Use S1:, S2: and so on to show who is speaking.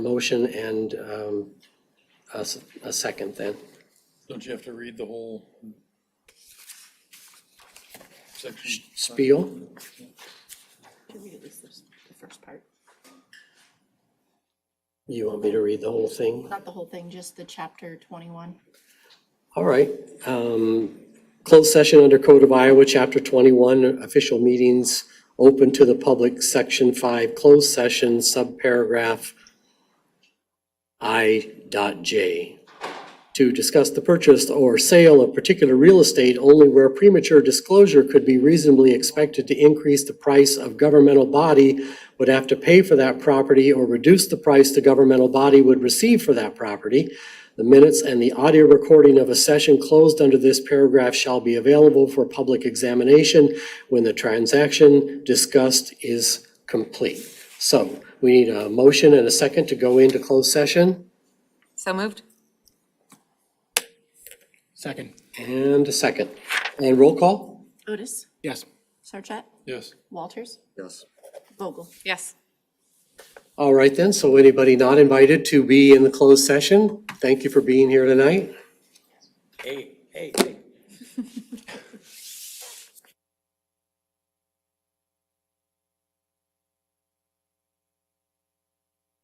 S1: Motion and um, a s- a second then.
S2: Don't you have to read the whole section?
S1: Spiel?
S3: Should read at least this- the first part,
S1: You want me to read the whole thing?
S3: not the whole thing, just the chapter twenty-one.
S1: All right. um, Closed session under Code of Iowa, Chapter 21, official meetings open to the public, Section 5, closed session, subparagraph I dot J. To discuss the purchase or sale of particular real estate only where premature disclosure could be reasonably expected to increase the price of governmental body would have to pay for that property or reduce the price the governmental body would receive for that property. The minutes and the audio recording of a session closed under this paragraph shall be available for public examination when the transaction discussed is complete. So we need a motion and a second to go into closed session
S4: So moved?
S5: Second,
S1: and a second. And roll call?
S3: Otis,
S5: yes.
S3: Sarchet,
S2: Yes.
S3: Walters,
S1: Yes.
S3: Vogel.
S4: Yes.
S1: All right then, so anybody not invited to be in the closed session, thank you for being here tonight.
S6: Hey, hey, hey.